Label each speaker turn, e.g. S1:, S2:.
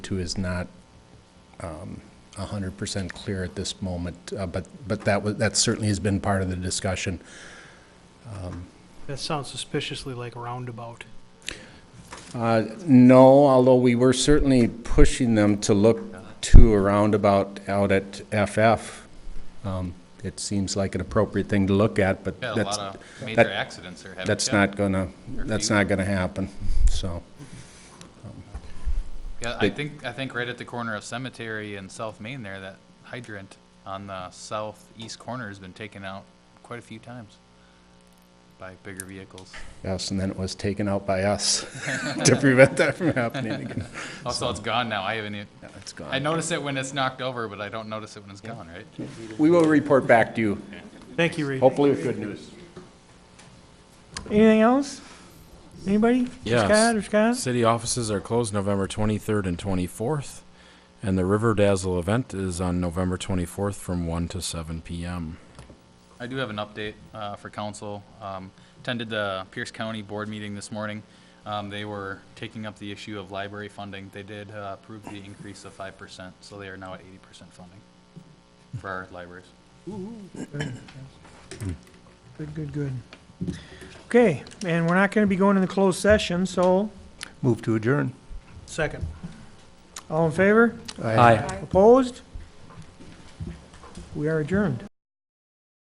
S1: to is not um, 100% clear at this moment, uh, but, but that, wa- that certainly has been part of the discussion.
S2: That sounds suspiciously like roundabout.
S1: Uh, No, although we were certainly pushing them to look to a roundabout out at FF. Um, It seems like an appropriate thing to look at, but
S3: Yeah, a lot
S1: that's,
S3: of major
S1: that-
S3: accidents are happening.
S1: that's
S3: Yeah.
S1: not gonna, that's
S3: few.
S1: not gonna happen, so.
S3: Yeah, I think, I think right at the corner of Cemetery and South Main there, that hydrant on the southeast corner has been taken out quite a few times by bigger vehicles.
S1: Yes, and then it was taken out by us to prevent that from happening again.
S3: Also, it's gone now. I haven't, even-
S1: Yeah, It's
S3: I
S1: gone.
S3: notice it when it's knocked over, but I don't notice it when it's gone, right?
S1: We will report back to you,
S2: Thank you, Reed.
S1: hopefully with good news.
S4: Anything else? Anybody?
S5: Yes.
S4: Scott or Scott?
S5: City offices are closed November 23rd and 24th, and the River Dazzle event is on November 24th from 1 to 7 p.m.
S3: I do have an update uh, for council. Um, Attended the Pierce County Board meeting this morning. Um, They were taking up the issue of library funding. They did uh, approve the increase of 5%, so they are now at 80% funding for our libraries.
S4: Good, good, good. Okay, and we're not gonna be going in the closed session, so
S6: Move to adjourn.
S2: Second.
S4: all in favor?
S6: Aye.
S4: Opposed? We are adjourned.